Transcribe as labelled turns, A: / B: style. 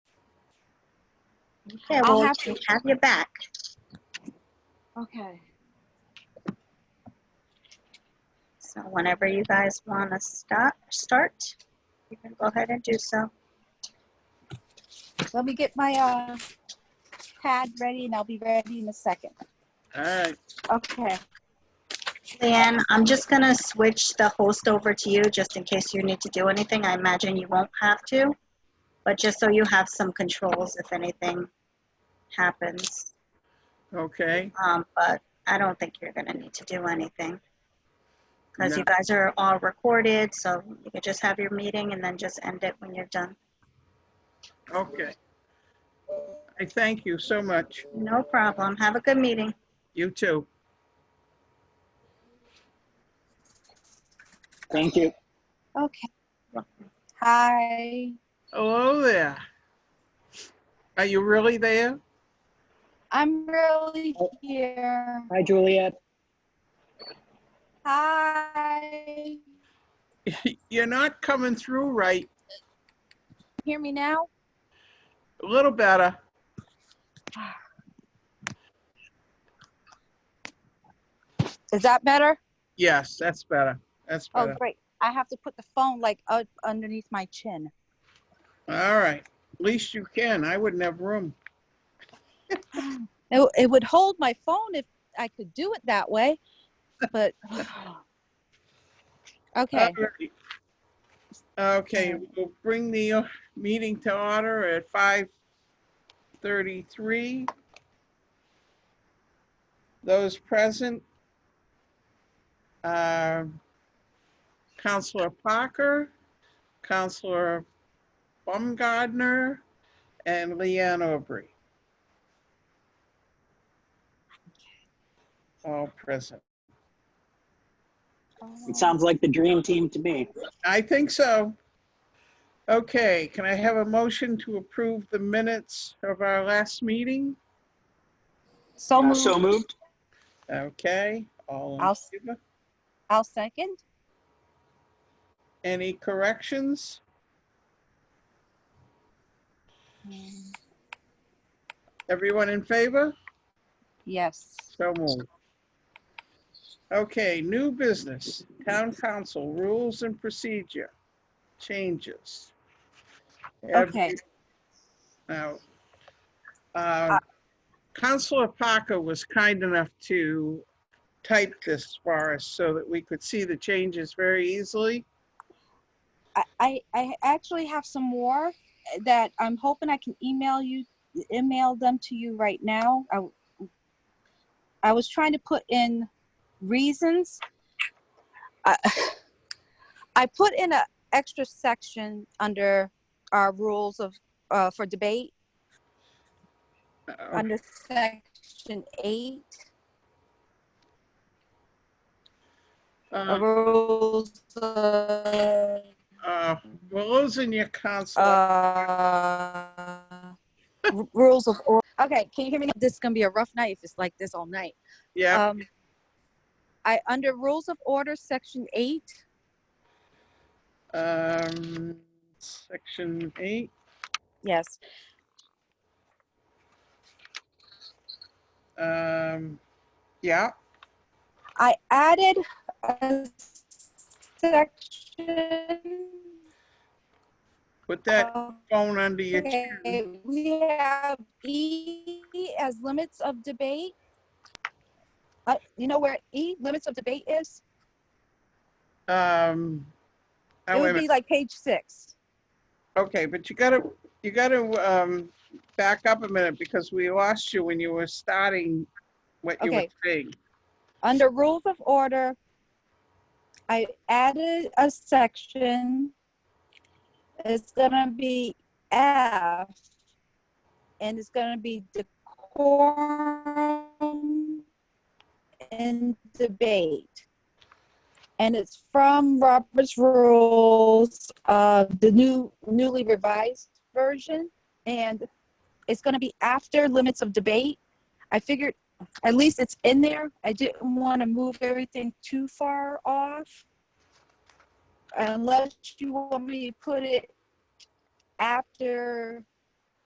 A: Okay,
B: I'll
A: well,
B: have
A: we
B: to-
A: have you back.
B: Okay.
A: So whenever you guys want to stop, start, you can go ahead and do so.
B: Let me get my uh, pad ready and I'll be ready in a second.
C: All right.
B: Okay.
A: Leanne, I'm just going to switch the host over to you just in case you need to do anything. I imagine you won't have to, but just so you have some controls if anything happens.
C: Okay.
A: Um, but I don't think you're going to need to do anything because
C: No.
A: you guys are all recorded, so you can just have your meeting and then just end it when you're done.
C: Okay. I thank you so much.
A: No problem. Have a good meeting.
C: You too.
D: Thank you.
B: Okay. Hi.
C: Hello there. Are you really there?
B: I'm really here.
D: Hi, Juliet.
B: Hi.
C: You're not coming through right.
B: Hear me now?
C: A little better.
B: Is that better?
C: Yes, that's better. That's
B: Oh,
C: better.
B: great. I have to put the phone like up underneath my chin.
C: All right. Least you can. I wouldn't have room.
B: It, it would hold my phone if I could do it that way, but okay.
C: All right. Okay, we'll bring the uh, meeting to order at five thirty-three. Those present. uh, Counselor Parker, Counselor Baumgardner, and Leanne Aubrey. All present.
D: It sounds like the dream team to me.
C: I think so. Okay, can I have a motion to approve the minutes of our last meeting?
B: So moved.
D: So moved?
C: Okay, all
B: I'll
C: in
B: s-
C: favor?
B: I'll second.
C: Any corrections? Everyone in favor?
B: Yes.
C: So moved. Okay, new business, town council rules and procedure changes.
B: Okay.
C: Now, um, Counselor Parker was kind enough to type this for us so that we could see the changes very easily.
B: I, I, I actually have some more eh, that I'm hoping I can email you, email them to you right now. I, I was trying to put in reasons. I, I put in a extra section under our rules of, uh, for debate,
C: Uh,
B: under section eight, uh,
C: uh,
B: rules of
C: uh, We're losing your counselor.
B: Uh, r- rules of order. Okay, can you hear me? now? This is gonna be a rough night if it's like this all night.
C: Yeah,
B: Um, I under rules of order, section eight.
C: um, section eight.
B: Yes.
C: Um, yeah,
B: I added a section.
C: put that
B: of-
C: phone under your chin.
B: Oh, Okay, we have E as limits of debate. Uh, you know where E limits of debate is?
C: Um,
B: It
C: oh, wait a
B: would be
C: minute.
B: like page six.
C: Okay, but you gotta, you gotta, um, back up a minute because we lost you when you were starting what you were
B: Okay.
C: saying.
B: Under rules of order, I added a section. It's gonna be F. And it's gonna be decorum and debate. And it's from Robert's Rules, uh, the new newly revised version. And it's gonna be after limits of debate. I figured at least it's in there. I didn't want to move everything too far off. Unless you want me to put it after